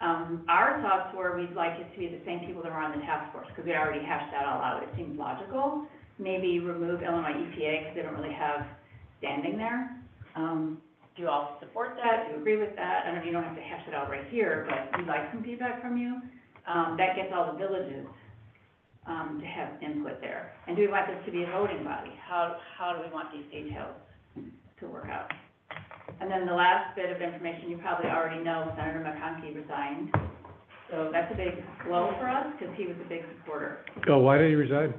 Um, our thoughts were, we'd like it to be the same people that were on the task force, because we already hashed that all out, it seemed logical. Maybe remove Illinois E EPA, because they don't really have standing there. Um, Do you all support that, that? do you agree with that? I know you don't have to hash it out right here, but we'd like some feedback from you. Um, that gets all the villages, um, to have input there. And do we want this to be a voting body? How, how do we want these details to work out? And then the last bit of information, you probably already know, Senator McConkey resigned. So that's a big blow for us, because he was a big supporter. Oh, why did he resign?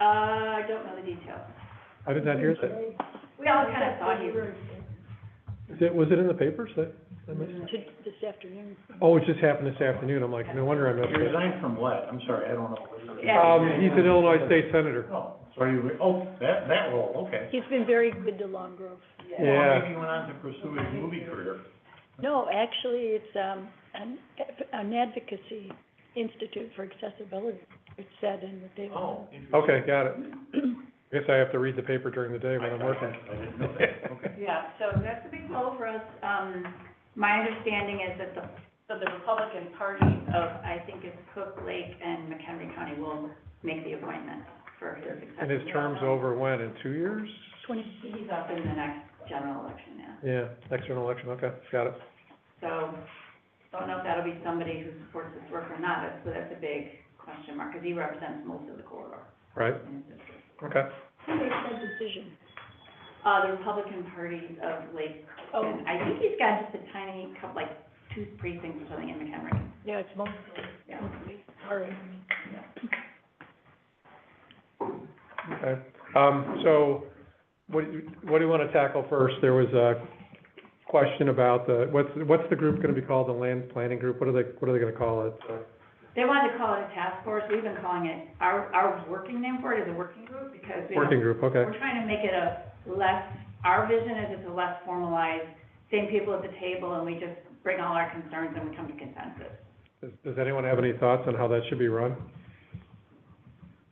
Uh, I don't know the details. I did not hear that. We all kind of thought he was, Is it, was it in the papers that, I missed? This afternoon. Oh, it just happened this afternoon, I'm like, no wonder I'm not You here. resigned from what? I'm sorry, I don't know. Yeah. Um, he's an Illinois state senator. Oh, so you, oh, that, that role, okay. He's been very good to Long Grove. Well, Yeah, maybe he went on to pursue his movie career. No, actually, it's, um, an, an advocacy institute for accessibility, it said in the paper. Oh. interesting. okay, got it. Guess I have to read the paper during the day when I'm working. I didn't know that, okay. yeah, so that's a big blow for us. Um, my understanding is that the So the Republican Party, of, I think it's Cook, Lake, and McHenry County will make the appointment for his successor. And his term's over when, in two years? Twenty, He's up in the next general election now, Yeah, next general election, okay, got it. so don't know if that'll be somebody who supports this work or not, but- so that's a big question mark, because he represents most of the corridor. Right, in his district. okay. who makes that decision? Uh, the Republican Party of Lake, Oh, and I think he's got just a tiny couple, like, two precincts or something in McHenry, yeah, it's mostly, yeah. mostly, sorry. Okay, um, so, what, do you- what do you wanna tackle first? There was a question about the, what's, what's the group gonna be called, the land planning group? What are they, what are they gonna call it? They wanted to call it a task force, we've been calling it, our, our working name for it is a working group, because we don't Working group, okay. We're trying to make it a less, our vision is it's a less formalized, same people at the table, and we just bring all our concerns and we come to consensus. Does, does anyone have any thoughts on how that should be run?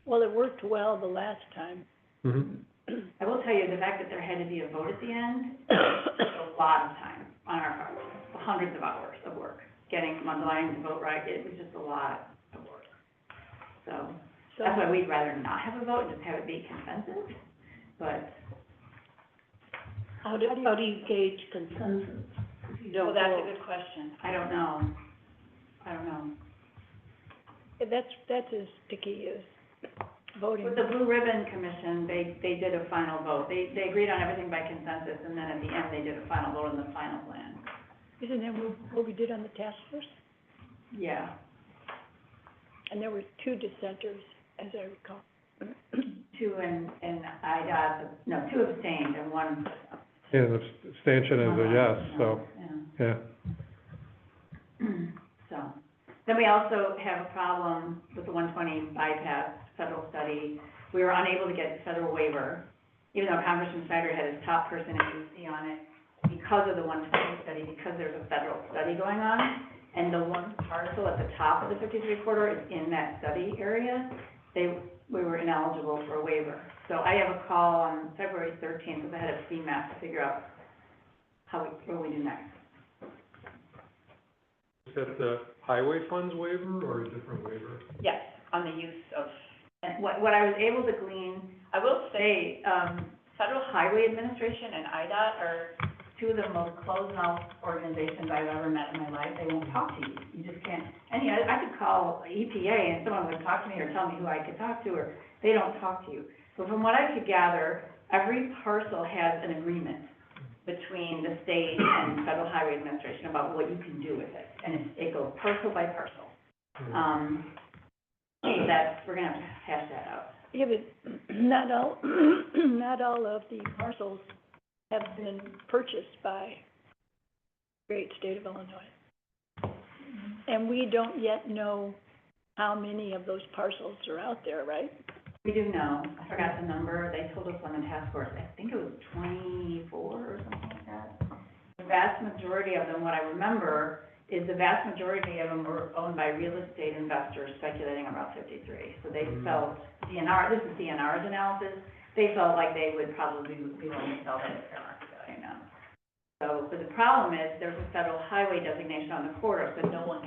Well, it worked well the last time. Mm-hmm. I will tell you, the fact that there had to be a vote at the end, took a lot of time on our part, hundreds of hours of work. Getting Mundelein to vote right, it was just a lot of work. So, So, that's why we'd rather not have a vote and just have it be consensus, but how do, how do you gauge consensus? well, that's a good question. I don't know. I don't know. That's, that's as sticky as voting. With the Blue Ribbon Commission, they, they did a final vote. They, they agreed on everything by consensus, and then at the end, they did a final vote on the final plan. Isn't that what- what we did on the task force? Yeah. And there were two dissenters, as I recall. Two and, and IDOT, no, two abstained and one. And the abstention is a yes, so, yeah. Yeah. So, then we also have a problem with the one twenty bypass federal study. We were unable to get federal waiver, even though Congressman Snyder had his top person in DC on it, because of the one twenty study, because there's a federal study going on. And the one parcel at the top of the fifty-three corridor is in that study area. They, we were ineligible for a waiver. So I have a call on February thirteenth with the head of CMAP to figure out how we, what we do next. Is that the highway funds waiver or a different waiver? Yes, on the use of, And what, what I was able to glean, I will say, they, um, Federal Highway Administration and IDOT are, two of the most closed-mouth organizations I've ever met in my life, they won't talk to you, you just can't. And, you know, I could call EPA and someone would talk to me or tell me who I could talk to, or they don't talk to you. But from what I could gather, every parcel has an agreement between the state and Federal Highway Administration about what you can do with it, and it- it goes parcel by parcel. Um, that, we're gonna have to hash that out. Yeah, but not all, not all of the parcels have been purchased by great state of Illinois. And we don't yet know how many of those parcels are out there, right? We do know, I forgot the number, they told us on the task force, I think it was twenty-four or something like that. The vast majority of them, what I remember, is the vast majority of them were owned by real estate investors speculating on Route fifty-three. So they Mm. felt, DNR, this is DNR's analysis, they felt like they would probably be willing to sell that at fair market value now. So, but the problem is, there's a federal highway designation on the corridor, so no one